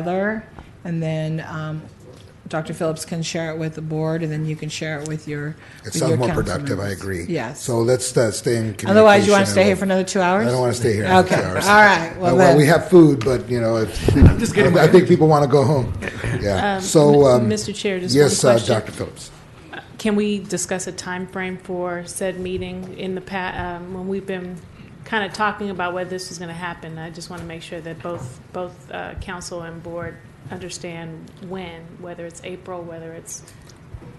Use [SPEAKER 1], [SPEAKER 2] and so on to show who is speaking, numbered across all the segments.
[SPEAKER 1] together, and then um, Dr. Phillips can share it with the board, and then you can share it with your.
[SPEAKER 2] It
[SPEAKER 1] with
[SPEAKER 2] sounds
[SPEAKER 1] your
[SPEAKER 2] more
[SPEAKER 1] council
[SPEAKER 2] productive, I
[SPEAKER 1] members.
[SPEAKER 2] agree.
[SPEAKER 1] Yes.
[SPEAKER 2] So let's uh, stay in communication.
[SPEAKER 1] Otherwise, you want
[SPEAKER 2] and
[SPEAKER 1] to stay here
[SPEAKER 2] we'll-
[SPEAKER 1] for another two hours?
[SPEAKER 2] I don't want to stay here. another
[SPEAKER 1] Okay,
[SPEAKER 2] two
[SPEAKER 1] all
[SPEAKER 2] hours.
[SPEAKER 1] right,
[SPEAKER 2] Uh,
[SPEAKER 1] well
[SPEAKER 2] Well, we
[SPEAKER 1] then,
[SPEAKER 2] have food, but, you know, it's- I I think people want to go home. Yeah, so. um,
[SPEAKER 3] Mr. Chair, just one
[SPEAKER 2] Yes, uh,
[SPEAKER 3] question.
[SPEAKER 2] Dr. Phillips.
[SPEAKER 3] Can we discuss a time frame for said meeting in the pa, um, when we've been kind of talking about whether this is going to happen? I just want to make sure that both, both, uh, council and board understand when, whether it's April, whether it's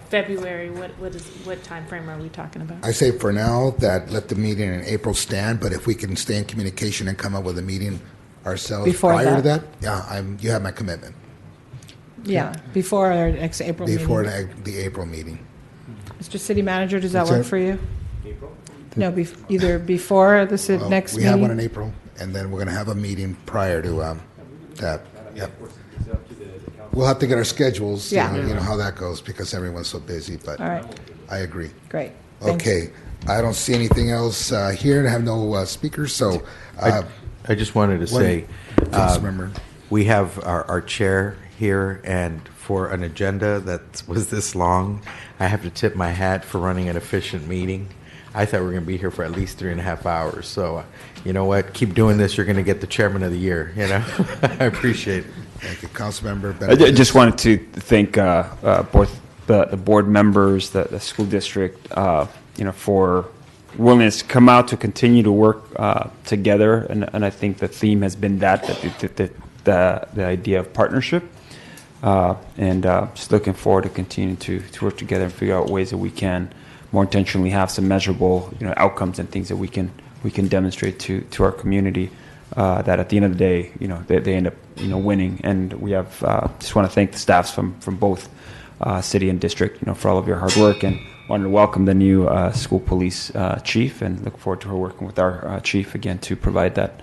[SPEAKER 3] February, what, what is, what timeframe are we talking about?
[SPEAKER 2] I say for now that let the meeting in April stand, but if we can stay in communication and come up with a meeting ourselves
[SPEAKER 1] Before
[SPEAKER 2] prior to
[SPEAKER 1] that.
[SPEAKER 2] that, yeah, I'm, you have my commitment,
[SPEAKER 1] yeah, before our next April
[SPEAKER 2] before
[SPEAKER 1] meeting.
[SPEAKER 2] the the April meeting.
[SPEAKER 1] Mr. City Manager, does that
[SPEAKER 2] What's
[SPEAKER 1] work
[SPEAKER 2] that?
[SPEAKER 1] for you? No, bef- either before the si-
[SPEAKER 2] Well,
[SPEAKER 1] next
[SPEAKER 2] We have one in
[SPEAKER 1] meeting,
[SPEAKER 2] April, and then we're going to have a meeting prior to um, that. Yep. We'll have to get our schedules, you
[SPEAKER 1] Yeah.
[SPEAKER 2] know, you know how that goes, because everyone's so busy, but
[SPEAKER 1] All right.
[SPEAKER 2] I agree.
[SPEAKER 1] great. Thank you.
[SPEAKER 2] Okay, I don't see anything else uh, here, and I have no uh, speakers, so uh,
[SPEAKER 4] I just wanted to say,
[SPEAKER 2] please remember.
[SPEAKER 4] we have our, our chair here, and for an agenda that was this long, I have to tip my hat for running an efficient meeting. I thought we were going to be here for at least three and a half hours. So, uh, you know what? Keep doing this. You're going to get the chairman of the year. You know, I appreciate it.
[SPEAKER 2] Thank you, Councilmember
[SPEAKER 5] I ju-
[SPEAKER 2] Benavides.
[SPEAKER 5] just wanted to thank uh, uh, both the, the board members, the, the school district, uh, you know, for willingness to come out to continue to work uh, together. And, and I think the theme has been that, that the, the, the, the idea of partnership. Uh, and uh, just looking forward to continuing to, to work together and figure out ways that we can more intentionally have some measurable you know outcomes and things that we can we can demonstrate to to our community uh, that at the end of the day you know they, they end up you know winning and we have uh, just want to thank the staffs from from both uh, city and district you know for all of your hard work and wanted to welcome the new uh, school police uh, chief and look forward to her working with our uh, chief again to provide that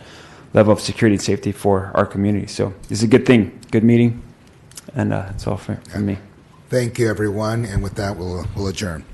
[SPEAKER 5] level of security and safety for our community so this is a good thing good meeting and uh, that's all for, for me
[SPEAKER 2] Thank you, everyone, and with that, we'll we'll adjourn.